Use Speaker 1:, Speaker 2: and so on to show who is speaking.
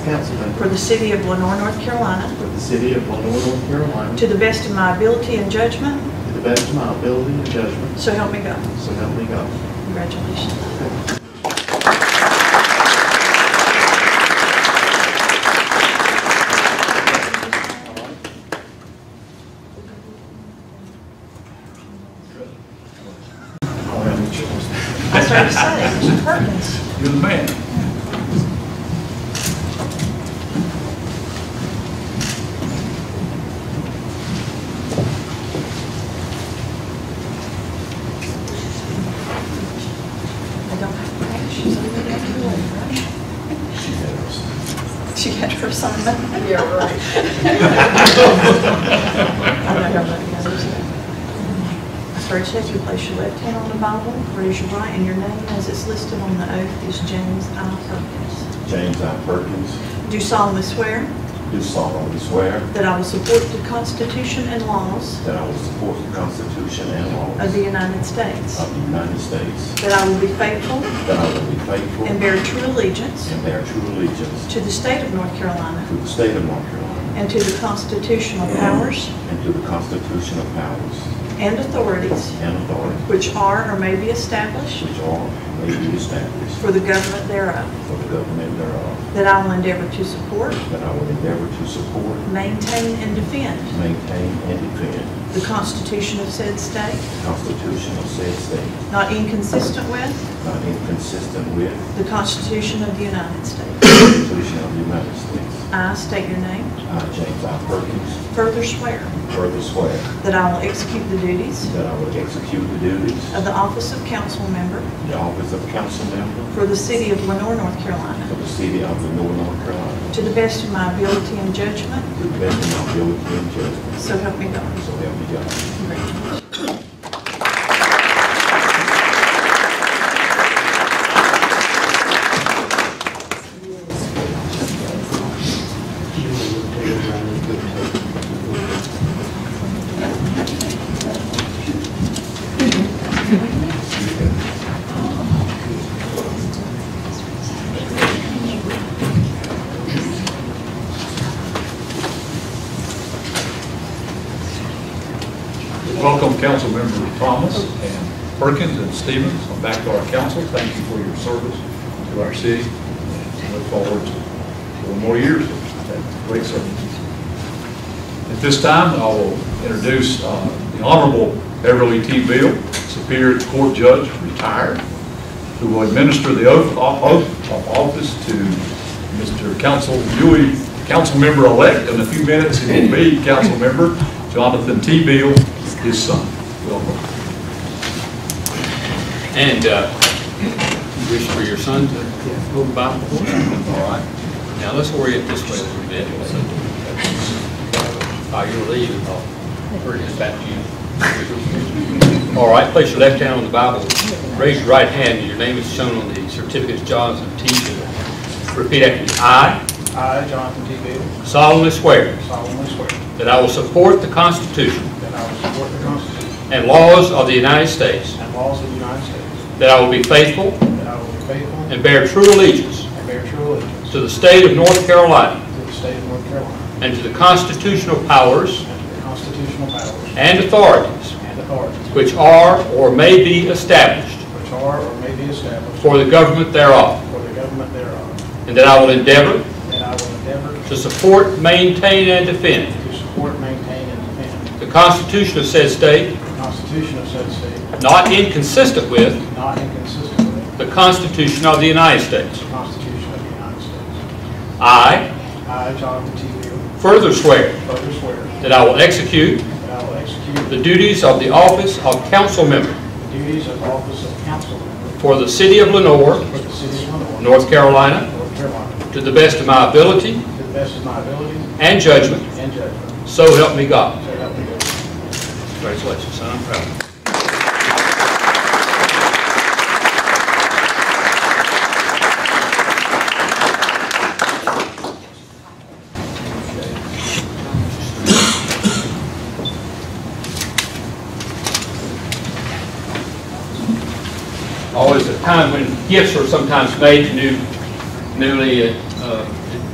Speaker 1: council member
Speaker 2: for the city of Lenore, North Carolina,
Speaker 1: for the city of Lenore, North Carolina,
Speaker 2: to the best of my ability and judgment,
Speaker 1: to the best of my ability and judgment,
Speaker 2: so help me God.
Speaker 1: so help me God.
Speaker 2: Congratulations.
Speaker 1: All right.
Speaker 2: I started to say, Mr. Perkins.
Speaker 3: You're the man.
Speaker 2: I don't have to pay. She's only got to do it, right? She had her son. Yeah, right. I know, I'm not I started to say, you place your left hand on the Bible, raise your right, and your name as it's listed on the oath is James I. Perkins.
Speaker 4: James I. Perkins,
Speaker 2: Do solemnly swear
Speaker 4: do solemnly swear
Speaker 2: that I will support the Constitution and laws
Speaker 4: that I will support the Constitution and
Speaker 2: of
Speaker 4: laws
Speaker 2: the United States,
Speaker 4: of the United States,
Speaker 2: that I will be faithful
Speaker 4: that I will be faithful
Speaker 2: and bear true allegiance
Speaker 4: and bear true allegiance
Speaker 2: to the state of North Carolina
Speaker 4: to the state of North Carolina
Speaker 2: And to the constitutional powers
Speaker 4: and to the constitutional powers
Speaker 2: and authorities
Speaker 4: and authorities
Speaker 2: which are or may be established
Speaker 4: which are and may be established
Speaker 2: for the government thereof,
Speaker 4: for the government thereof,
Speaker 2: that I will endeavor to support,
Speaker 4: that I will endeavor to support,
Speaker 2: maintain, and defend
Speaker 4: maintain, and defend
Speaker 2: the Constitution of said state,
Speaker 4: the Constitution of said state,
Speaker 2: not inconsistent with
Speaker 4: not inconsistent with
Speaker 2: the Constitution of the United States.
Speaker 4: the Constitution of the United States.
Speaker 2: I state your name.
Speaker 4: I, James I. Perkins,
Speaker 2: Further swear
Speaker 4: further swear
Speaker 2: that I will execute the duties
Speaker 4: That I will execute the duties
Speaker 2: of
Speaker 4: of
Speaker 2: the office of council member
Speaker 4: the office of council member
Speaker 2: for the city of Lenore, North Carolina,
Speaker 4: for the city of Lenore, North Carolina,
Speaker 2: to the best of my ability and judgment,
Speaker 4: to the best of my ability and judgment,
Speaker 2: so help me God.
Speaker 4: so help me God.
Speaker 2: Congratulations.
Speaker 3: Welcome, council members Thomas and Perkins and Stevens, and back to our council. Thank you for your service to our city. Look forward to four more years of that great service. At this time, I will introduce uh, the Honorable Beverly T. Bill, Superior Court Judge, retired, who will administer the oath uh, oath of office to Mr. Council Dewey, Councilmember-elect, in a few minutes, he will be Councilmember Jonathan T. Bill, his son. Welcome.
Speaker 5: And uh, you wish for your son to hold the Bible for you? All right. Now, let's orient this way a little bit. By your leave, I'll turn this back to you. All right, place your left hand on the Bible, raise your right hand, and your name is shown on the certificate of Johns of teaching. Repeat after me. I
Speaker 6: I, Jonathan T. Bailey,
Speaker 5: solemnly swear
Speaker 6: solemnly swear
Speaker 5: that I will support the Constitution
Speaker 6: that I will support the Constitution
Speaker 5: and laws of the United States,
Speaker 6: and laws of the United States,
Speaker 5: that I will be faithful
Speaker 6: that I will be faithful
Speaker 5: and bear true allegiance
Speaker 6: and bear true allegiance
Speaker 5: to the state of North Carolina
Speaker 6: to the state of North Carolina
Speaker 5: and to the constitutional powers
Speaker 6: and to the constitutional powers
Speaker 5: and authorities
Speaker 6: and authorities
Speaker 5: which are or may be established
Speaker 6: which are or may be established
Speaker 5: for the government thereof,
Speaker 6: for the government thereof,
Speaker 5: and that I will endeavor
Speaker 6: that I will endeavor
Speaker 5: to support, maintain, and defend
Speaker 6: to support, maintain, and defend
Speaker 5: the Constitution of said state,
Speaker 6: the Constitution of said state,
Speaker 5: not inconsistent with
Speaker 6: not inconsistent with
Speaker 5: the Constitution of the United States.
Speaker 6: the Constitution of the United States.
Speaker 5: I
Speaker 6: I, Jonathan T. Bailey,
Speaker 5: further swear
Speaker 6: further swear
Speaker 5: that I will execute
Speaker 6: that I will execute
Speaker 5: the duties of the office of council member
Speaker 6: the duties of office of council member
Speaker 5: for the city of Lenore,
Speaker 6: for the city of Lenore,
Speaker 5: North Carolina,
Speaker 6: North Carolina,
Speaker 5: to the best of my ability
Speaker 6: to the best of my ability
Speaker 5: and judgment,
Speaker 6: and judgment,
Speaker 5: so help me God.
Speaker 6: so help me God.
Speaker 5: Congratulations, son. I'm proud of you. Always a time when gifts are sometimes made to new, newly uh,